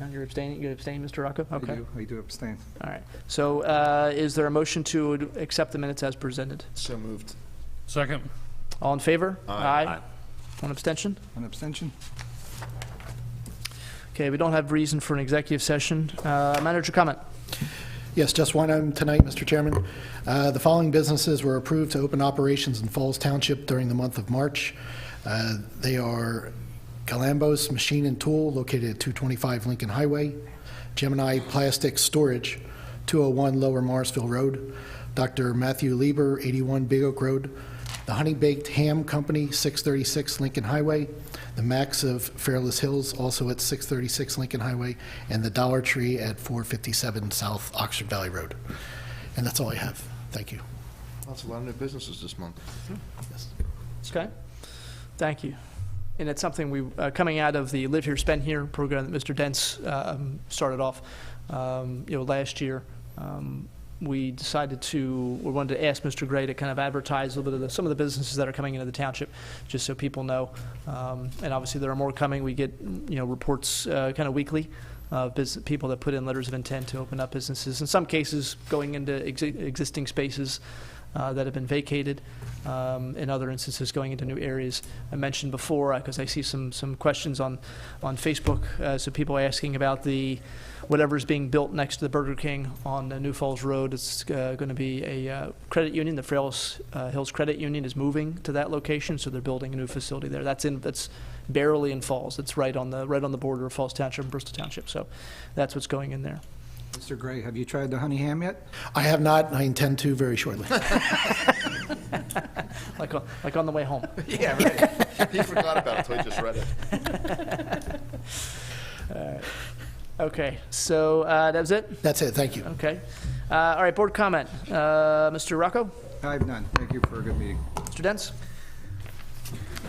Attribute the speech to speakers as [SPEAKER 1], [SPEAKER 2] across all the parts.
[SPEAKER 1] No, You're abstaining, you abstain, Mr. Rocco?
[SPEAKER 2] I
[SPEAKER 1] Okay,
[SPEAKER 2] do- I do abstain.
[SPEAKER 1] all right. So uh, is there a motion to accept the minutes as presented?
[SPEAKER 3] So moved.
[SPEAKER 4] Second.
[SPEAKER 1] All in favor?
[SPEAKER 3] Aye.
[SPEAKER 1] One abstention?
[SPEAKER 2] An abstention?
[SPEAKER 1] Okay, we don't have reason for an executive session. Uh, Manager comment?
[SPEAKER 5] Yes, just one item tonight, Mr. Chairman. Uh, The following businesses were approved to open operations in Falls Township during the month of March. Uh, They are Galambos Machine and Tool, located at 225 Lincoln Highway, Gemini Plastic Storage, 201 Lower Marsville Road, Dr. Matthew Lieber, 81 Big Oak Road, The Honey Baked Ham Company, 636 Lincoln Highway, The Max of Fairless Hills, also at 636 Lincoln Highway, and The Dollar Tree at 457 South Oxford Valley Road. And that's all I have. Thank you.
[SPEAKER 3] That's a lot of new businesses this month.
[SPEAKER 1] Okay, thank you. And it's something we, uh, coming out of the Live Here, Spend Here program that Mr. Dents um, started off, um, you know, last year, um, we decided to, we wanted to ask Mr. Gray to kind of advertise a little bit of the, some of the businesses that are coming into the township, just so people know. Um, And obviously, there are more coming. We get, you know, reports uh, kind of weekly of bus- people that put in letters of intent to open up businesses, in some cases going into exi- existing spaces uh, that have been vacated, um, in other instances going into new areas. I mentioned before, because I see some, some questions on, on Facebook, uh, so people asking about the, whatever's being built next to the Burger King on uh, New Falls Road. It's uh, going to be a uh, credit union, the Frails uh, Hills Credit Union is moving to that location, so they're building a new facility there. That's in, that's barely in Falls. It's right on the, right on the border of Falls Township and Bristol Township, so that's what's going in there.
[SPEAKER 2] Mr. Gray, have you tried the honey ham yet?
[SPEAKER 5] I have not, and I intend to very shortly.
[SPEAKER 1] Like, on- like on the way home.
[SPEAKER 3] Yeah, right. He forgot about it till he just read it.
[SPEAKER 1] Okay, so uh, that was it?
[SPEAKER 5] That's it. Thank you.
[SPEAKER 1] Okay. Uh, All right, board comment. Uh, Mr. Rocco,
[SPEAKER 2] I have none. Thank you for a good meeting.
[SPEAKER 1] Mr. Dents?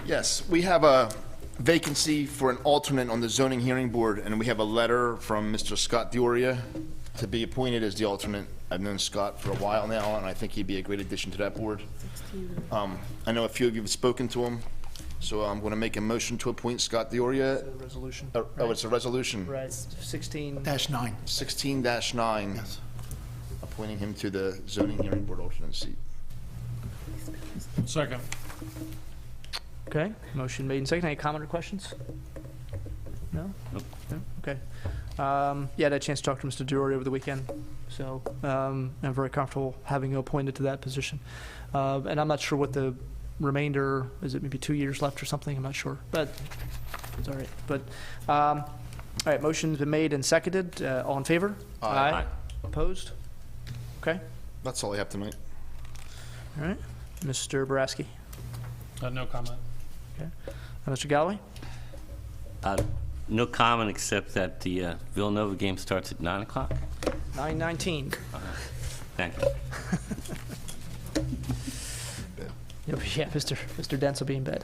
[SPEAKER 3] Yes, we have a vacancy for an alternate on the zoning hearing board, and we have a letter from Mr. Scott Dioria to be appointed as the alternate. I've known Scott for a while now, and I think he'd be a great addition to that board. Um, I know a few of you have spoken to him, so I'm going to make a motion to appoint Scott Dioria.
[SPEAKER 1] Resolution.
[SPEAKER 3] Oh, oh, it's a resolution.
[SPEAKER 1] Right, 16,
[SPEAKER 5] Dash nine.
[SPEAKER 3] Sixteen nine, appointing him to the zoning hearing board alternate seat.
[SPEAKER 4] Second.
[SPEAKER 1] okay. Motion made and seconded. Any comment or questions? No? No? Okay. Um, Yeah, I had a chance to talk to Mr. Dury over the weekend, so um, I'm very comfortable having you appointed to that position. Uh, And I'm not sure what the remainder, is it maybe two years left or something? I'm not sure, but it's all right. But, um, all right, motion's been made and seconded. Uh, All in favor?
[SPEAKER 3] Aye. Aye.
[SPEAKER 1] Opposed? Okay,
[SPEAKER 3] That's all I have tonight.
[SPEAKER 1] all right. Mr. Boraski?
[SPEAKER 4] Uh, No comment.
[SPEAKER 1] Uh, Mr. Galloway?
[SPEAKER 6] Uh, No comment, except that the uh, Villanova game starts at 9 o'clock.
[SPEAKER 1] 919.
[SPEAKER 6] Thank you.
[SPEAKER 1] You'll be- Yeah, Mr. Mr. Dents will be in bed.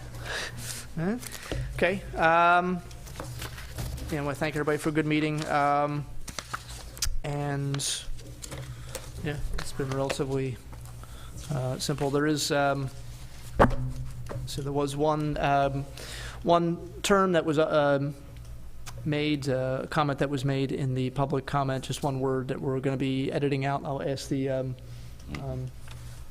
[SPEAKER 1] Huh? Okay. Um, yeah, I want to thank everybody for a good meeting. Um, and yeah, it's been relatively uh, simple. There is um, so there was one um, one term that was uh, um, made uh, comment that was made in the public comment. Just one word that we're going to be editing out. I'll ask the. Um, um,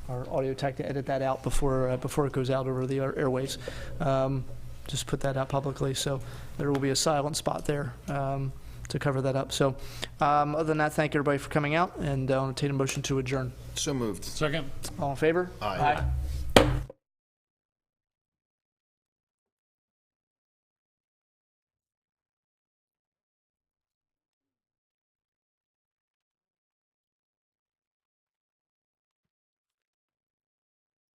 [SPEAKER 1] our audio tech to edit that out before, uh, before it goes out over the air- airwaves. Um, Just put that out publicly, so there will be a silent spot there um, to cover that up. So um, other than that, uh, thank everybody for coming out, and I'll entertain a motion to adjourn.
[SPEAKER 3] So moved.
[SPEAKER 4] Second.
[SPEAKER 1] All in favor?
[SPEAKER 3] Aye.
[SPEAKER 1] Aye.